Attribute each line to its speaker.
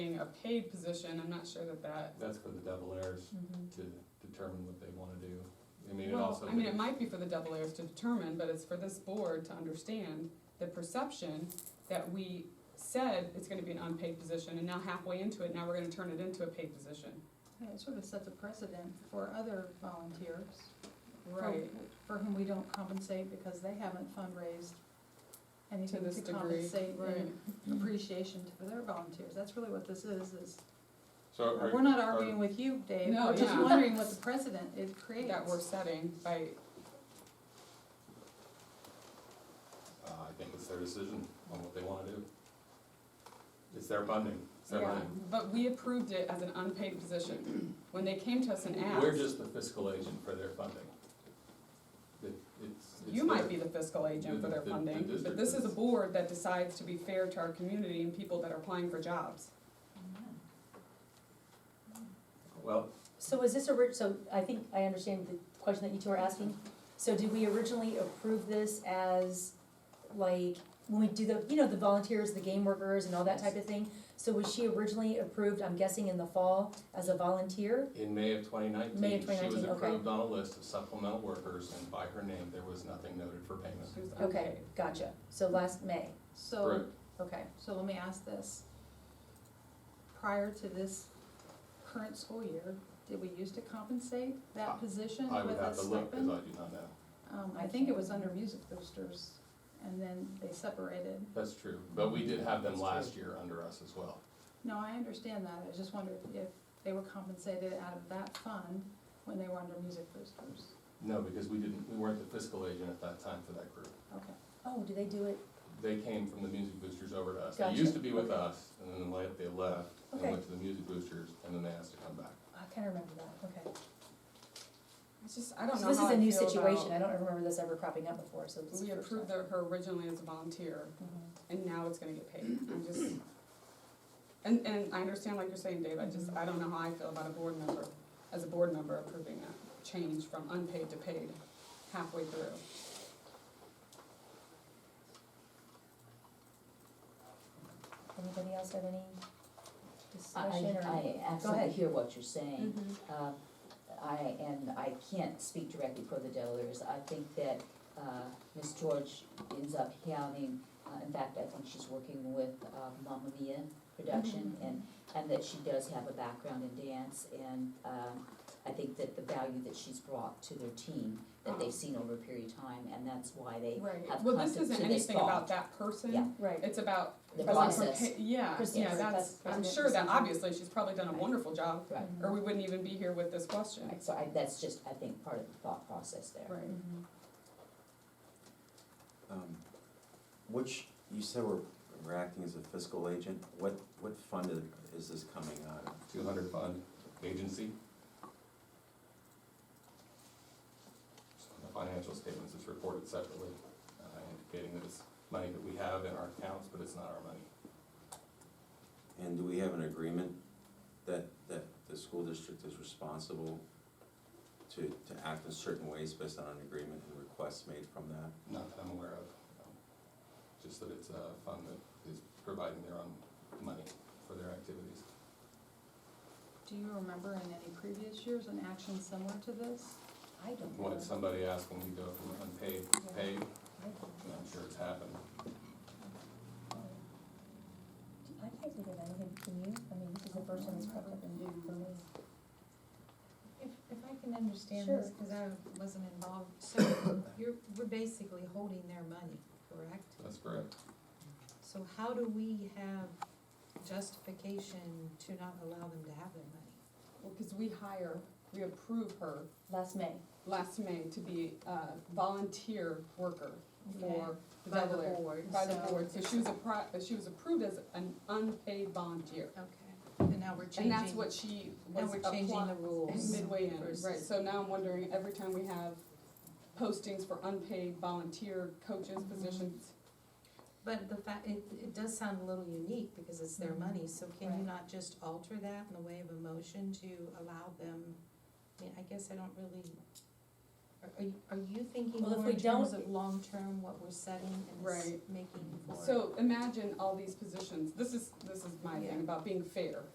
Speaker 1: a paid position, I'm not sure that that,
Speaker 2: That's for the double heirs
Speaker 3: Mhm.
Speaker 2: to determine what they wanna do. I mean, it
Speaker 1: well,
Speaker 2: also.
Speaker 1: I mean, it might be for the double A's to determine, but it's for this board to understand the perception that we said it's gonna be an unpaid position, and now halfway into it, now we're gonna turn it into a paid position.
Speaker 3: Yeah, It sort of sets a precedent for other volunteers. for-
Speaker 1: Right.
Speaker 3: For whom we don't compensate because they haven't fundraised
Speaker 1: To
Speaker 3: anything
Speaker 1: this
Speaker 3: to
Speaker 1: degree,
Speaker 3: compensate
Speaker 1: right. Mm-hmm.
Speaker 3: in appreciation to their volunteers. That's really what this is, is,
Speaker 2: So are,
Speaker 3: we're not
Speaker 2: are-
Speaker 3: arguing with you, Dave.
Speaker 1: No,
Speaker 3: We're just
Speaker 1: yeah.
Speaker 3: wondering what the precedent it creates.
Speaker 1: That we're setting by,
Speaker 2: uh, I think it's their decision on what they wanna do. It's their funding, it's their
Speaker 1: yeah,
Speaker 2: money.
Speaker 1: but we approved it as an unpaid position. When they came to us and
Speaker 2: We're
Speaker 1: asked,
Speaker 2: just the fiscal agent for their funding. It, it's. it's
Speaker 1: you might
Speaker 2: their-
Speaker 1: be the fiscal agent for their
Speaker 2: The- the- the
Speaker 1: funding, but
Speaker 2: district
Speaker 1: this is a
Speaker 2: is.
Speaker 1: board that decides to be fair to our community and people that are applying for jobs.
Speaker 2: Well,
Speaker 4: So is this a, ri- so I think I understand the question that you two are asking. So did we originally approve this as, like, when we do the, you know, the volunteers, the game workers and all that type of thing? So was she originally approved, I'm guessing in the fall, as a volunteer?
Speaker 2: in May of twenty
Speaker 4: May
Speaker 2: nineteen,
Speaker 4: of
Speaker 2: she was
Speaker 4: 2019, okay.
Speaker 2: approved on a list of supplemental workers and by her name, there was nothing noted for payment.
Speaker 1: She was
Speaker 4: Okay,
Speaker 1: unpaid.
Speaker 4: gotcha. So last May,
Speaker 3: So,
Speaker 2: Correct.
Speaker 4: okay.
Speaker 3: so let me ask this. Prior to this current school year, did we used to compensate
Speaker 2: I-
Speaker 3: that position
Speaker 2: I
Speaker 3: with
Speaker 2: would
Speaker 3: a
Speaker 2: have to look, cause
Speaker 3: stipend?
Speaker 2: I do not know.
Speaker 3: Um, I think it was under music boosters and then they separated.
Speaker 2: That's true, but we did have them last year under us as well.
Speaker 3: No, I understand that, I just wondered if they were compensated out of that fund when they were under music boosters.
Speaker 2: No, because we didn't, we weren't the fiscal agent at that time for that group.
Speaker 3: Okay,
Speaker 4: Oh, do they do it?
Speaker 2: They came from the Music Boosters over to us. They
Speaker 4: Gotcha.
Speaker 2: used to be with us, and then like, they left and
Speaker 4: Okay.
Speaker 2: went to the Music Boosters, and then they asked to come back.
Speaker 4: I kinda remember that, okay.
Speaker 1: It's just, I don't know
Speaker 4: So this
Speaker 1: how
Speaker 4: is a
Speaker 1: I
Speaker 4: new
Speaker 1: feel
Speaker 4: situation.
Speaker 1: about-
Speaker 4: I don't remember this ever cropping up before, so this is.
Speaker 1: We
Speaker 4: the first time.
Speaker 1: approved her her originally as a volunteer,
Speaker 4: Mhm.
Speaker 1: and now it's gonna get paid, I'm just, and, and I understand like you're saying, Dave, I just, I don't know how I feel about a board member, as a board member approving that change from unpaid to paid halfway through.
Speaker 4: Anybody else have any discussion or?
Speaker 5: I, I
Speaker 4: ahead.
Speaker 5: absolutely hear what you're saying.
Speaker 4: Mm-hmm.
Speaker 5: Uh, I, and I can't speak directly for the Delawares. I think that uh, Ms. George ends up having, uh, in fact, I think she's working with uh, Mamma Mia production
Speaker 4: Mm-hmm.
Speaker 5: and, and that she does have a background in dance and um, I think that the value that she's brought to their team, that they've seen over a period of time, and that's why they
Speaker 4: Right.
Speaker 5: have
Speaker 1: Well,
Speaker 5: come to,
Speaker 1: this
Speaker 5: to this
Speaker 1: isn't anything
Speaker 5: thought.
Speaker 1: about that person.
Speaker 5: Yeah.
Speaker 4: Right.
Speaker 1: It's about.
Speaker 5: The
Speaker 1: about her
Speaker 5: process.
Speaker 1: pa- Yeah, yeah,
Speaker 4: Process.
Speaker 1: that's,
Speaker 4: That's-
Speaker 1: I'm
Speaker 4: that's-
Speaker 1: sure that obviously she's probably done a
Speaker 5: Right.
Speaker 1: wonderful job,
Speaker 5: Right,
Speaker 4: Mm-hmm.
Speaker 1: or we wouldn't even be here with this question.
Speaker 5: right, so I, that's just, I think, part of the thought process there.
Speaker 1: Right.
Speaker 4: Mhm.
Speaker 6: Um, Which, you said we're, we're acting as a fiscal agent, what, what fund i- is this coming out of?
Speaker 2: Two hundred fund agency. So The financial statements is reported separately, uh, indicating that it's money that we have in our accounts, but it's not our money.
Speaker 6: And do we have an agreement that, that the school district is responsible to, to act in certain ways based on an agreement and requests made from that?
Speaker 2: Not that I'm aware of. um, Just that it's a fund that is providing their own money for their activities.
Speaker 3: do you remember in any previous years an action similar to this?
Speaker 5: I don't know.
Speaker 2: What somebody asked when we go from unpaid to paid,
Speaker 5: I don't know.
Speaker 2: and I'm sure it's happened.
Speaker 4: I can't think of anything, can you? I mean, this is the first one that's popped up in, for me.
Speaker 7: If, if I can understand
Speaker 4: Sure.
Speaker 7: this, because I wasn't involved, so you're, we're basically holding their money, correct?
Speaker 2: That's correct.
Speaker 7: So how do we have justification to not allow them to have their money?
Speaker 1: Well, cause we hire, we approve her
Speaker 4: Last May.
Speaker 1: last May to be a volunteer worker for the
Speaker 7: By the
Speaker 1: Double Air.
Speaker 7: board,
Speaker 1: By the
Speaker 7: so-
Speaker 1: board, so she was a pro, she was approved as an unpaid volunteer.
Speaker 7: Okay, and now we're
Speaker 1: And
Speaker 7: changing,
Speaker 1: that's what she
Speaker 7: now
Speaker 1: was
Speaker 7: we're changing the
Speaker 1: applying
Speaker 7: rules.
Speaker 1: midway in, right,
Speaker 7: versus-
Speaker 1: so now I'm wondering, every time we have postings for unpaid volunteer coaches
Speaker 7: Mm-hmm.
Speaker 1: positions,
Speaker 7: But the fact, it, it does sound a little unique, because it's their
Speaker 4: Mm-hmm.
Speaker 7: money, so can you not just alter that in the way of a motion to allow them? I mean, I guess I don't really, are, are you, are you thinking
Speaker 4: Well, if
Speaker 7: more
Speaker 4: we
Speaker 7: in terms
Speaker 4: don't-
Speaker 7: of long-term, what we're setting and s-
Speaker 1: Right.
Speaker 7: making for?
Speaker 1: So imagine all these positions, this is, this is my thing
Speaker 7: Yeah.
Speaker 1: about being fair,